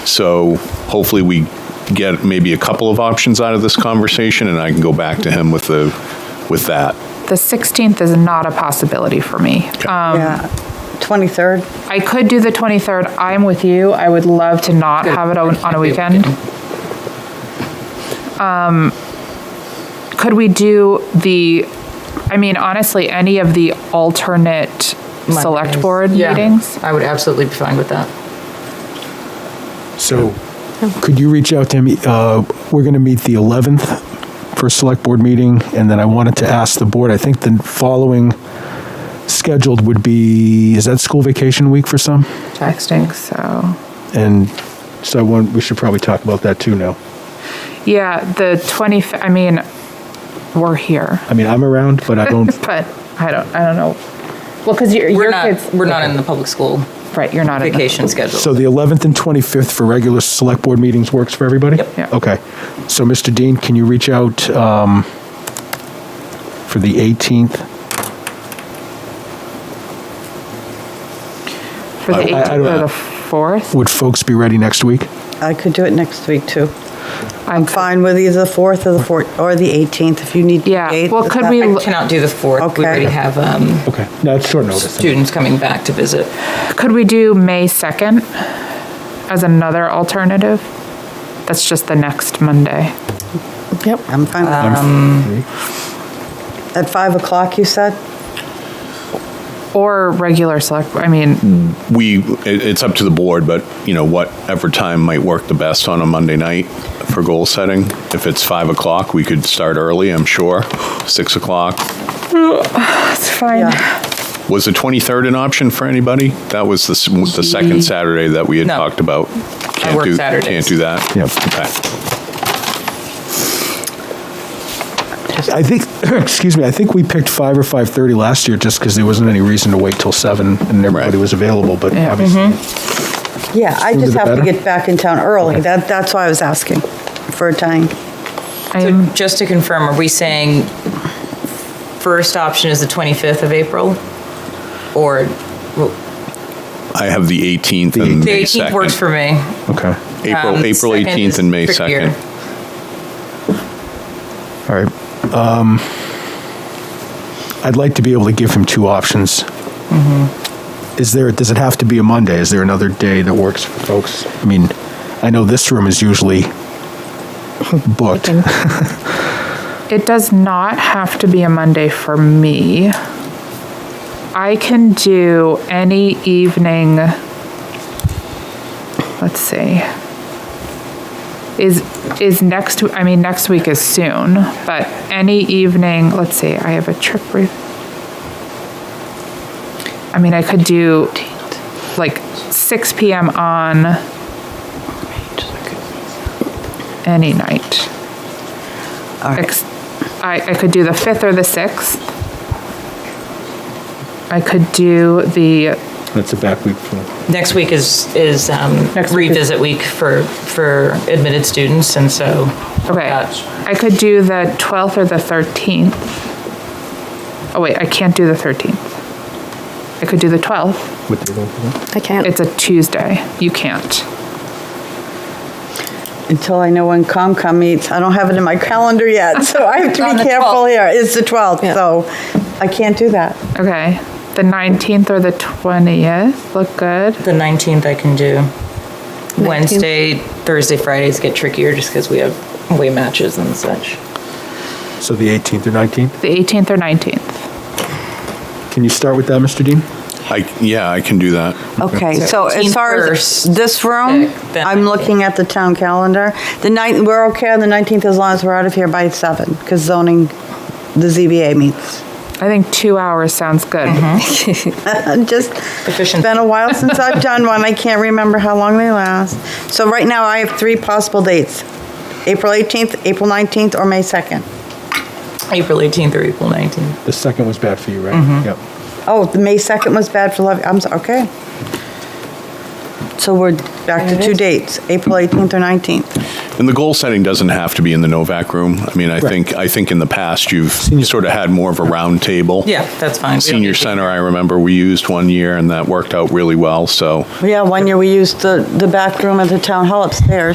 So hopefully we get maybe a couple of options out of this conversation and I can go back to him with the, with that. The 16th is not a possibility for me. Um, Yeah, 23rd? I could do the 23rd. I'm with you. I would love to not have it on on a weekend. Um, Could we do the, I mean, honestly, any of the alternate select Mondays. board Yeah, meetings? I would absolutely be fine with that. So, could you reach out to me? Uh, We're going to meet the 11th for a select board meeting, and then I wanted to ask the board, I think the following scheduled would be, is that school vacation week for some? I think so. And so I want, we should probably talk about that too now. Yeah, the 20, I mean, we're here, I mean, I'm around, but I don't, but I don't, I don't know. Well, because your, We're your not, kids. we're not in the public school Right, you're not in the- vacation schedule. so the 11th and 25th for regular select board meetings works for everybody? Yep. Yeah. Okay. So, Mr. Dean, can you reach out um, for the 18th? For the I- I- I 18th don't or know. the 4th? Would folks be ready next week? I could do it next week, too. I'm Fine with either the 4th or the 4th, or the 18th, if you need. Yeah, dates, well, is could that- we- I cannot do the 4th. We Okay. already have um, Okay. No, it's short notice. students coming back to visit. Could we do May 2nd as another alternative? That's just the next Monday. I'm fine with that. Um, At 5 o'clock, you said? Or regular select, I mean, We, it, it's up to the board, but you know, whatever time might work the best on a Monday night for goal setting. If it's five o'clock, we could start early, I'm sure. Six o'clock. it's fine. Yeah. Was the 23rd an option for anybody? That was the, s- the second Saturday that we had Mm-hmm. No. talked about. Can't work do- Saturdays. Can't do that? Yep. Okay. I think, excuse me, I think we picked five or 5:30 last year just because there wasn't any reason to wait till seven and everybody Right. was available, but Yeah. obviously. Yeah, I Sooner just the have to better. get back in town early. That, that's why I was asking for a time. So I'm, just to confirm, are we saying first option is the 25th of April? Or I have the 18th The and the May 18th works 2nd. for me. Okay, April, Um, April second 18th is and May trickier. 2nd. all right. Um, I'd like to be able to give him two options. Is there, does it have to be a Monday? Is there another day that works for folks? I mean, I know this room is usually booked. it does not have to be a Monday for me. I can do any evening, let's see. Is, is next, I mean, next week is soon, but any evening, let's see, I have a trip. re- I mean, I could do like 6 PM on any night. Ex- I, I could do the 5th or the 6th. I could do the, That's a back week for Next week is, is um, Next week is- revisit week for, for admitted students, and so. okay, that's- I could do the 12th or the 13th. Oh, wait, I can't do the 13th. I could do the 12th. with the. I can't. It's a Tuesday. You can't. Until I know when COMCOM meets. I don't have it in my calendar yet, so I have to On be the careful 12th. here. It's the 12th, Yeah. so I can't do that. Okay. The 19th or the 20th. Look good. The 19th I can do. Wednesday, Thursday, Fridays get trickier just because we have away matches and such. So the 18th or 19th? The 18th or 19th. Can you start with that, Mr. Dean? I, yeah, I can do that. Okay, so as 18th far as first, this room, pick, then I'm looking at the town calendar. The ninth, we're okay on the 19th as long as we're out of here by 7, because zoning, the ZBA meets. I think two hours sounds good. Just, it's Efficient. been a while since I've done one, I can't remember how long they last. So right now, I have three possible dates, April 18th, April 19th, or May 2nd. April 18th or April 19th. The second was bad for you, right? Yep. Oh, the May 2nd was bad for love, I'm, so- okay. So we're back to two dates, April 18th or 19th. And the goal setting doesn't have to be in the Novak room. I mean, I think, I think in the past, you've sort of had more of a round table. Yeah, that's fine. We don't Senior need to- Center, I remember we used one year and that worked out really well, so. Yeah, one year we used the, the back room at the town hall upstairs.